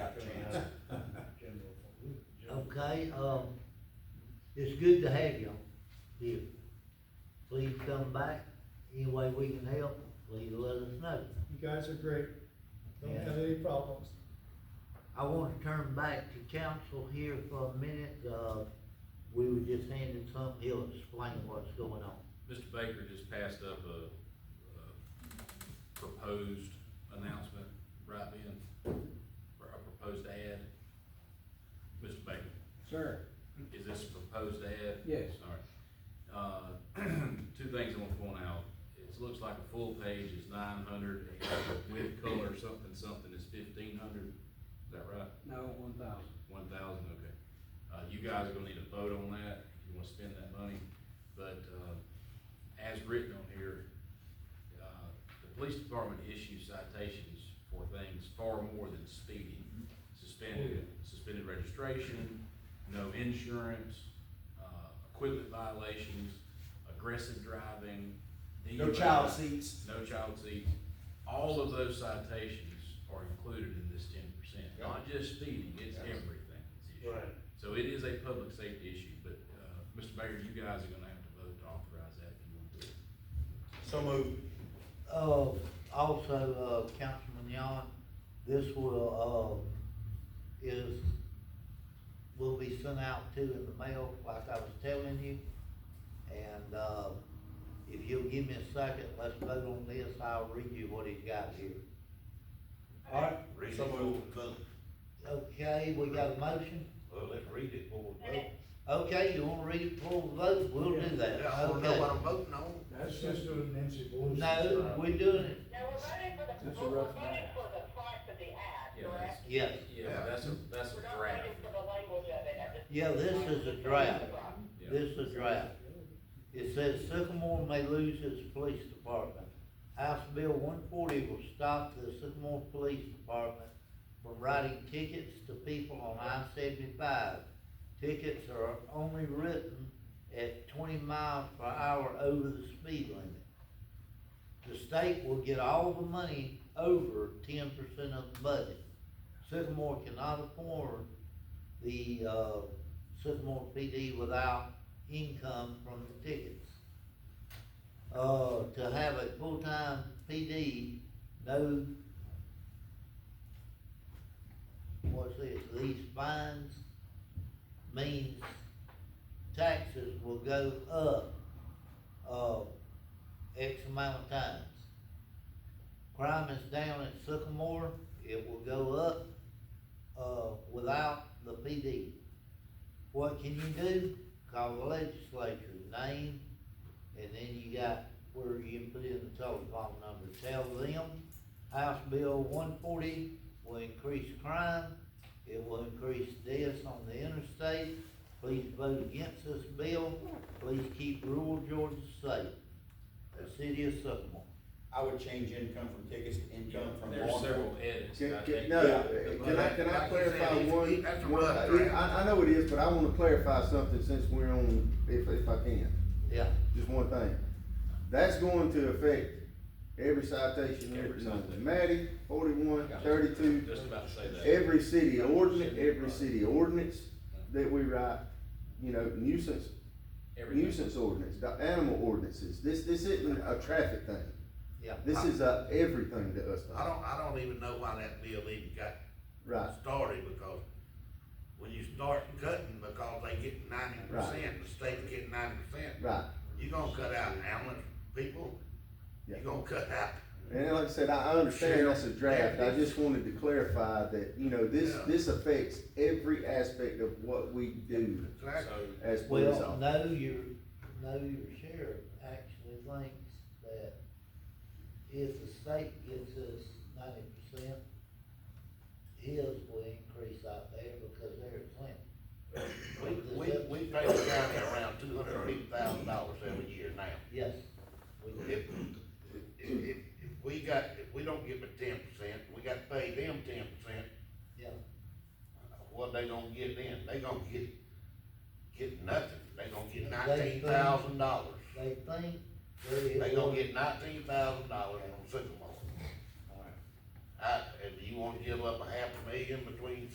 Okay, um, it's good to have y'all here. Please come back, any way we can help, please let us know. You guys are great. Don't Yeah. have any problems. I want to turn back to council here for a minute, uh, we were just handing something, he'll explain what's going on. Mr. Baker just passed up a, a proposed announcement right then, or a proposed ad. Mr. Baker, Sir, is this a proposed ad? Yes. All right. Uh, two things I want to point out. It looks like a full page is nine hundred, with color something, something is fifteen hundred. Is that right? no, one thousand. One thousand, okay. Uh, you guys are gonna need to vote on that, if you wanna spend that money, but, uh, as written on here, uh, the police department issues citations for things far more than speeding. Suspended, suspended registration, no insurance, uh, equipment violations, aggressive driving. DUI. seats. No child seats, all of those citations are included in this ten percent, not just speeding, it's Yeah. everything. that's issued. Right. So it is a public safety issue, but, uh, Mr. Baker, you guys are gonna have to vote to authorize that if you want to. So moved. Uh, also, uh, Councilman Yon, this will, uh, is, will be sent out to in the mail, like I was telling you. And, uh, if you'll give me a second, let's vote on this, I'll read you what he's got here. Alright. Read it So for moved. the vote. Okay, we got a motion? Well, let's read it for the vote. Okay, you wanna read it before we vote, we'll do that, Yeah, I wanna know what okay? I'm voting on. That's just a Nancy Pelosi. No, we're doing it, No, we're voting for the, That's a we're rough voting night. for the price of the ad, Yeah, correct? that's, yes, yeah, that's a, that's We're a not draft. voting for the language of it at this. yeah, this is a draft. Yeah. This is draft. It says Sycamore may lose its police department. House Bill one forty will stop the Sycamore Police Department from writing tickets to people on I seventy-five. Tickets are only written at twenty miles per hour over the speed limit. The state will get all the money over ten percent of the budget. Sycamore cannot afford the, uh, Sycamore PD without income from the tickets. Uh, to have a full-time PD, no, what's this, these fines means taxes will go up, uh, X amount of times. Crime is down at Sycamore, it will go up, uh, without the PD. What can you do? Call the legislature, name, and then you got where you can put in the telephone number. Tell them House Bill one forty will increase crime, it will increase deaths on the interstate. Please vote against this bill, please keep rural Georgia safe. The city of Sycamore. I would change income from tickets to income from There's law several enforcement. edits. Can, that I can, think- no, Yeah, can I, can I Like you said, clarify it's- one? that's a one- rough yeah, draft. I, I know it is, but I wanna clarify something since we're on, if, if I can, Yeah, just one thing. That's going to affect every citation, Every every citation. number, Matty, forty-one, thirty-two, Just about to say that. every city ordinance, every city ordinance that we write, you know, nuisance, Everything. nuisance ordinance, the animal ordinances, this, this isn't a traffic thing. yeah. This is a everything to us. I don't, I don't even know why that bill even got Right, started, because when you start cutting, because they get ninety percent, the state's getting ninety percent. right. You're gonna cut out ambulance people, you're Yeah. gonna cut out And like I said, I I understand that's a draft, I just wanted to clarify that, you know, this, Yeah. this affects every aspect of what we do Exactly. as police Well, officers. know your, know your sheriff actually thinks that if the state gives us ninety percent, his will increase out there because they're at Clinton. We, we, we pay the county around two hundred and fifty thousand dollars every year now. Yes. we If, do. if, if, if we got, if we don't give it ten percent, we gotta pay them ten percent, Uh, Yeah, what they gonna get then? They gonna get, get nothing, they gonna They- get nineteen thousand dollars. they think there is. They gonna one- get nineteen thousand dollars on Sycamore. All right. I, if you wanna give up a half a million between